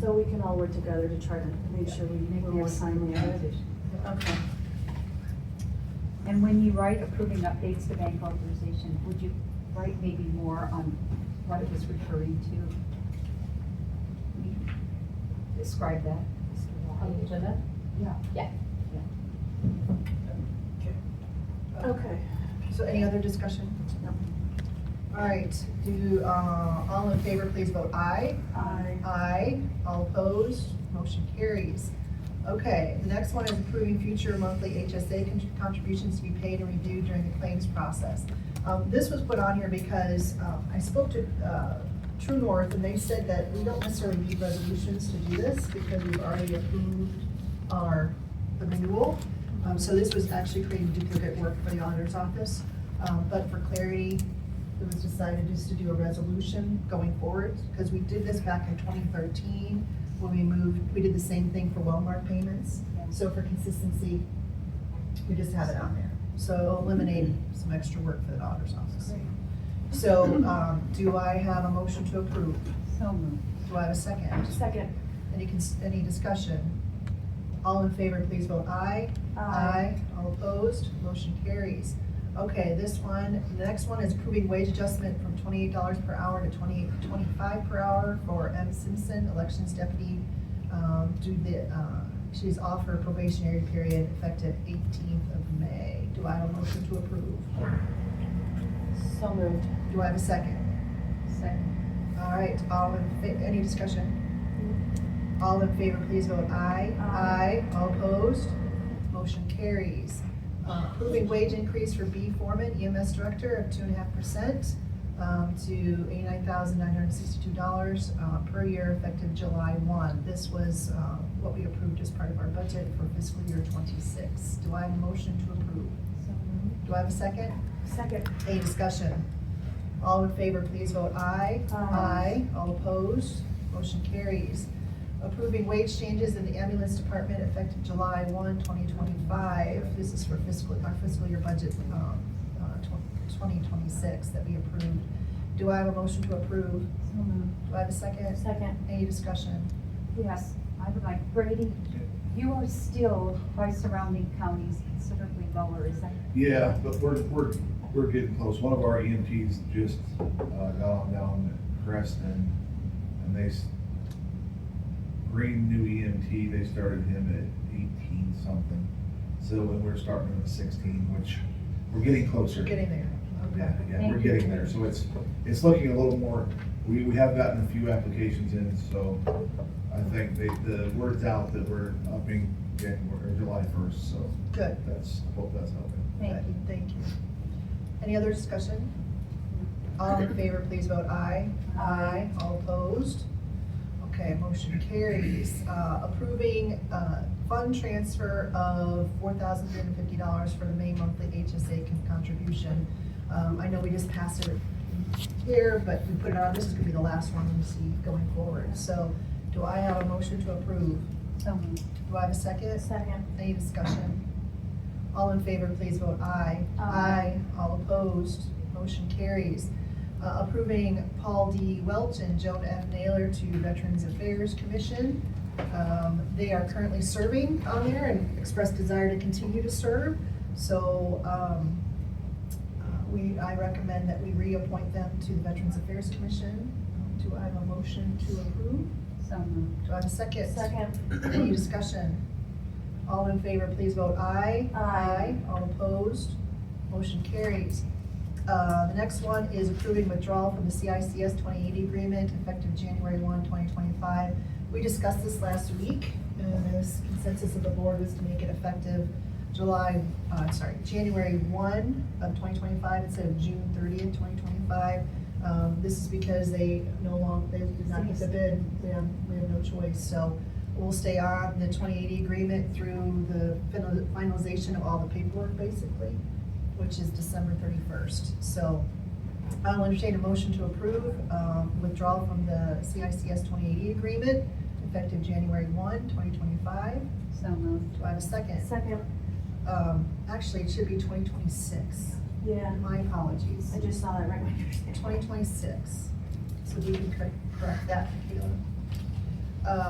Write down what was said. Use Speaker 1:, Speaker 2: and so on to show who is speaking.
Speaker 1: So we can all work together to try to make sure we make more timely. Okay.
Speaker 2: And when you write approving updates to bank authorization, would you write maybe more on what it was referring to? Can you Describe that.
Speaker 3: On the agenda?
Speaker 1: Okay.
Speaker 3: So any other discussion? No. All right, do, uh, all in favor, please vote aye.
Speaker 1: Aye.
Speaker 3: Aye, all opposed, motion carries. Okay, the next one is approving future monthly HSA con- contributions to be paid and reviewed during the claims process. Um, This was put on here because um, I spoke to uh, True North, and they said that we don't necessarily need resolutions to do this because we've already approved our the renewal. Um, So this was actually creating duplicate work for the auditor's office. Um, But for clarity, it was decided just to do a resolution going forward, because we did this back in 2013 when we moved, we did the same thing for Walmart payments. So for consistency, we just have it on there. So it'll eliminate some extra work for the auditor's office. So um, do I have a motion to approve?
Speaker 2: So moved.
Speaker 3: Do I have a second?
Speaker 1: Second.
Speaker 3: Any, cons- any discussion? All in favor, please vote aye. Aye. All opposed, motion carries. Okay, this one, the next one is approving wage adjustment from twenty-eight dollars per hour to twenty-eight, twenty-five per hour for M. Simpson, elections deputy. Um, due the, uh, she's off her probationary period effective eighteenth of May. Do I have a motion to approve?
Speaker 1: So moved.
Speaker 3: Do I have a second?
Speaker 2: Second.
Speaker 3: All right, all in, fa- any discussion? All in favor, please vote aye.
Speaker 1: Aye.
Speaker 3: All opposed, motion carries. Uh, Approving wage increase for B foreman EMS director of two and a half percent um, to eighty-nine thousand nine hundred sixty-two dollars uh, per year effective July one. This was uh, what we approved as part of our budget for fiscal year twenty-six. Do I have a motion to approve?
Speaker 2: So moved.
Speaker 3: Do I have a second?
Speaker 1: Second.
Speaker 3: Any discussion? All in favor, please vote aye.
Speaker 1: Aye.
Speaker 3: All opposed, motion carries. Approving wage changes in the ambulance department effective July 1, 2025. This is for fiscal, our fiscal year budget um, uh, tw- 2026 that we approved. Do I have a motion to approve?
Speaker 2: So moved.
Speaker 3: Do I have a second?
Speaker 1: Second.
Speaker 3: Any discussion?
Speaker 2: Yes, I would like, Brady, you are still by surrounding counties considerably lower, is that?
Speaker 4: Yeah, but we're, we're, we're getting close. One of our EMTs just, uh, gone down to Creston and they, s- green new EMT, they started him at eighteen something. So, and we're starting him at sixteen, which we're getting closer.
Speaker 3: We're getting there.
Speaker 4: Yeah, yeah,
Speaker 2: Thank
Speaker 4: we're
Speaker 2: you.
Speaker 4: getting there. So it's, it's looking a little more, we, we have gotten a few applications in, so I think they, the word's out that we're upping January, or July first, so
Speaker 3: Good.
Speaker 4: that's, I hope that's helping.
Speaker 2: Thank you.
Speaker 3: Thank you. Any other discussion? All in favor, please vote aye. Aye. All opposed? Okay, motion carries. Uh, Approving uh, fund transfer of four thousand three hundred fifty dollars for the May monthly HSA con- contribution. Um, I know we just passed it here, but we put it on, this is gonna be the last one we see going forward. So do I have a motion to approve?
Speaker 2: So moved.
Speaker 3: Do I have a second?
Speaker 1: Second.
Speaker 3: Any discussion? All in favor, please vote aye.
Speaker 1: Aye.
Speaker 3: All opposed, motion carries. Uh, Approving Paul D. Welch and Joan F. Naylor to Veterans Affairs Commission. Um, They are currently serving on there and expressed desire to continue to serve. So um, uh, we, I recommend that we reappoint them to the Veterans Affairs Commission. Do I have a motion to approve?
Speaker 2: So moved.
Speaker 3: Do I have a second?
Speaker 1: Second.
Speaker 3: Any discussion? All in favor, please vote aye.
Speaker 1: Aye.
Speaker 3: All opposed, motion carries. Uh, The next one is approving withdrawal from the CICS 2080 agreement effective January 1, 2025. We discussed this last week, and the consensus of the board was to make it effective July, uh, sorry, January 1 of 2025 instead of June 30th, 2025. Um, This is because they no longer, they did not get the bid, we have, we have no choice, so we'll stay on the 2080 agreement through the final- finalization of all the paperwork, basically, which is December 31st. So I'll entertain a motion to approve um, withdrawal from the CICS 2080 agreement effective January 1, 2025.
Speaker 2: So moved.
Speaker 3: Do I have a second?
Speaker 1: Second.
Speaker 3: Um, Actually, it should be 2026.
Speaker 1: Yeah.
Speaker 3: My apologies.
Speaker 1: I just saw that right when you were saying.
Speaker 3: 2026. So we can cor- correct that, Kayla. Uh,